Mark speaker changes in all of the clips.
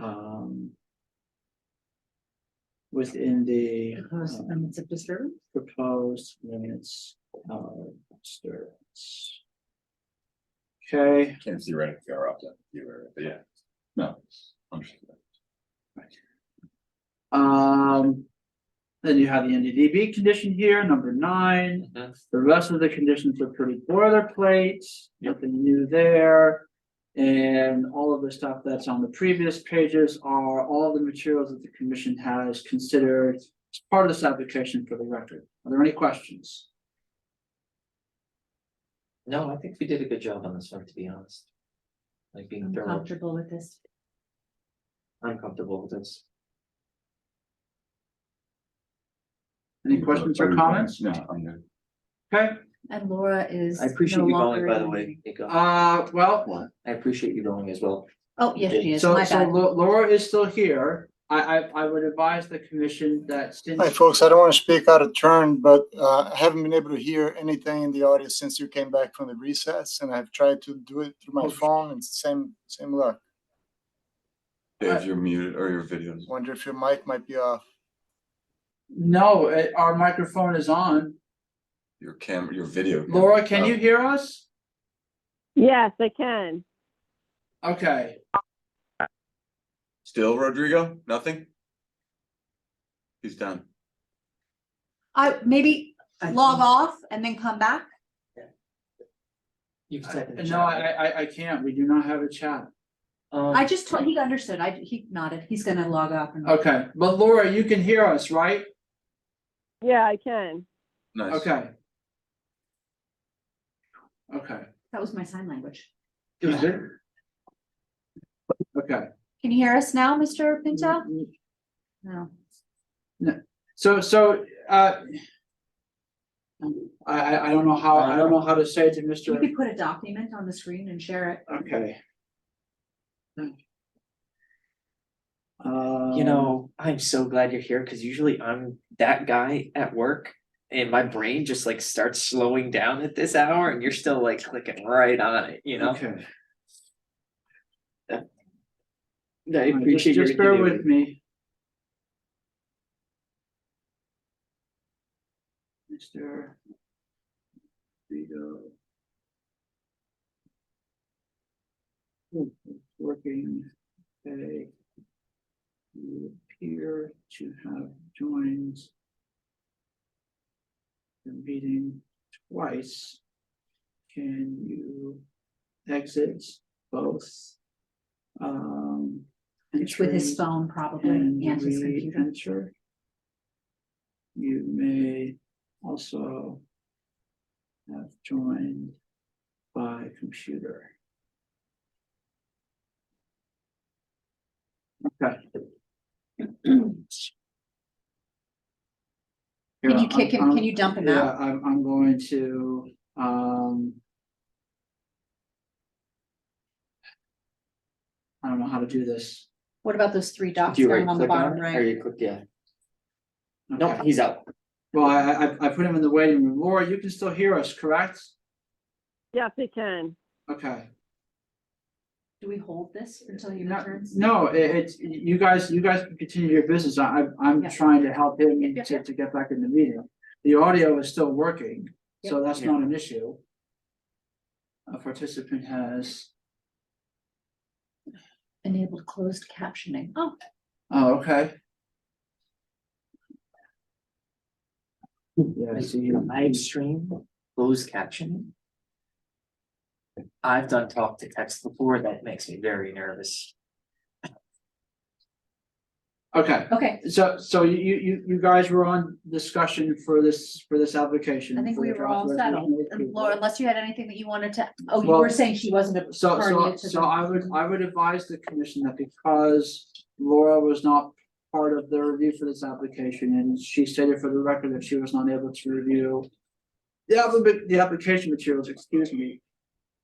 Speaker 1: um. Within the
Speaker 2: Proposed
Speaker 1: um,
Speaker 2: limits of disturbance?
Speaker 1: proposed limits of disturbance. Okay,
Speaker 3: Can theoretically are up to you, or- but yeah, no. understood.
Speaker 1: um. Then you have the NDDB condition here, number nine. The rest of the conditions are pretty boilerplate, nothing new there. And all of the stuff that's on the previous pages are all the materials that the commission has considered as part of this application for the record. Are there any questions?
Speaker 4: No, I think we did a good job on this one, to be honest. Like being
Speaker 2: I'm
Speaker 4: thorough,
Speaker 2: comfortable with this.
Speaker 4: I'm comfortable with this.
Speaker 1: Any questions or comments?
Speaker 3: No, I'm good.
Speaker 1: Okay,
Speaker 2: And Laura is.
Speaker 4: I appreciate
Speaker 2: no
Speaker 4: you going,
Speaker 2: longer
Speaker 4: by the
Speaker 2: in-
Speaker 4: way, Nico.
Speaker 1: uh, well,
Speaker 4: I appreciate you going as well.
Speaker 2: Oh, yes, she is,
Speaker 1: So,
Speaker 2: my
Speaker 1: so
Speaker 2: bad.
Speaker 1: Lo- Laura is still here. I, I, I would advise the commission that since.
Speaker 5: Hi, folks. I don't want to speak out of turn, but uh, I haven't been able to hear anything in the audio since you came back from the recess, and I've tried to do it through my
Speaker 1: Okay.
Speaker 5: phone, and same same luck.
Speaker 3: Dave, you're muted or your videos.
Speaker 5: Wonder if your mic might be off.
Speaker 1: No, eh, our microphone is on.
Speaker 3: Your camera, your video. camera.
Speaker 1: Laura, can
Speaker 3: Oh,
Speaker 1: you hear us?
Speaker 6: Yes, I can.
Speaker 1: Okay,
Speaker 3: Still Rodrigo? Nothing? He's done.
Speaker 2: I, maybe log off and then come back?
Speaker 4: You can
Speaker 1: I-
Speaker 4: type in the
Speaker 1: no, I,
Speaker 4: chat.
Speaker 1: I, I can't. We do not have a chat.
Speaker 4: Um,
Speaker 2: I just told, he understood, I, he nodded, he's gonna log off and.
Speaker 1: Okay, but Laura, you can hear us, right?
Speaker 6: Yeah, I can.
Speaker 3: Nice.
Speaker 1: Okay. Okay.
Speaker 2: That was my sign language.
Speaker 1: Okay,
Speaker 2: Can you hear us now, Mr. Pinto?
Speaker 4: Mm-hmm.
Speaker 2: No.
Speaker 1: so, so, uh. I, I, I don't know how, I don't know how to say to Mr.
Speaker 2: You could put a document on the screen and share it.
Speaker 1: Okay.
Speaker 4: um, You know, I'm so glad you're here, cause usually I'm that guy at work. And my brain just like starts slowing down at this hour and you're still like clicking right on it, you know?
Speaker 1: Okay.
Speaker 4: I
Speaker 1: Just-
Speaker 4: appreciate your.
Speaker 1: Just bear with
Speaker 4: ingenuity.
Speaker 1: me. Mister. Vito. Hmm, it's Working, they. You appear to have joined. The meeting twice. Can you exit both? Um.
Speaker 2: It's with his
Speaker 1: entries?
Speaker 2: phone probably
Speaker 1: And
Speaker 2: and his computer.
Speaker 1: re-enter. You may also have joined by computer. Okay.
Speaker 2: Can you kick him, can you dump him out?
Speaker 1: Yeah, I'm, I'm going to, um. I don't know how to do this.
Speaker 2: What about those three dots
Speaker 4: Do you
Speaker 2: down
Speaker 4: right
Speaker 2: on the
Speaker 4: click
Speaker 2: bottom
Speaker 4: on it or
Speaker 2: right?
Speaker 4: you click, yeah,
Speaker 1: Okay.
Speaker 4: no, he's out.
Speaker 1: Well, I, I, I- I put him in the waiting room. Laura, you can still hear us, correct?
Speaker 6: Yes, I can.
Speaker 1: Okay.
Speaker 2: Do we hold this until he
Speaker 1: No-
Speaker 2: returns?
Speaker 1: No, it, it's, you guys, you guys can continue your business. I, I'm- I'm
Speaker 2: Yeah.
Speaker 1: trying to help him
Speaker 2: Yeah, yeah,
Speaker 1: to, to get back in the meeting. The audio is still working, so that's
Speaker 4: Yeah.
Speaker 1: not an issue. A participant has,
Speaker 2: Enabled closed captioning. Oh,
Speaker 1: oh, okay. Yeah, so you,
Speaker 4: live stream, closed captioning. I've done talk to text before, that makes me very nervous.
Speaker 1: okay,
Speaker 2: okay.
Speaker 1: so, so you, you, you, you guys were on discussion for this, for this application.
Speaker 2: I think
Speaker 1: for
Speaker 2: we
Speaker 1: the
Speaker 2: were all
Speaker 1: authorization
Speaker 2: settled.
Speaker 1: of
Speaker 2: And
Speaker 1: approval.
Speaker 2: Laura, unless you had anything that you wanted to, oh, you
Speaker 1: Well,
Speaker 2: were saying she wasn't a
Speaker 1: So, so,
Speaker 2: party to
Speaker 1: so I would, I would advise the commission that because Laura was not part of the review for this application, and she stated for the record that she was not able to review the applic- the application materials, excuse me,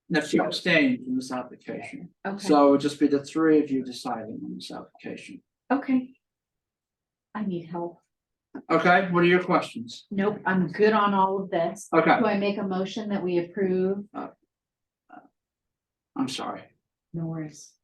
Speaker 1: and that she abstained from this application.
Speaker 2: the- Okay,
Speaker 1: So it would just be the three of you deciding on this application.
Speaker 2: okay. I need help.
Speaker 1: Okay, what are your questions?
Speaker 2: Nope, I'm good on all of this.
Speaker 1: Okay,
Speaker 2: Do I make a motion that we approve?
Speaker 1: I'm sorry.
Speaker 2: No worries.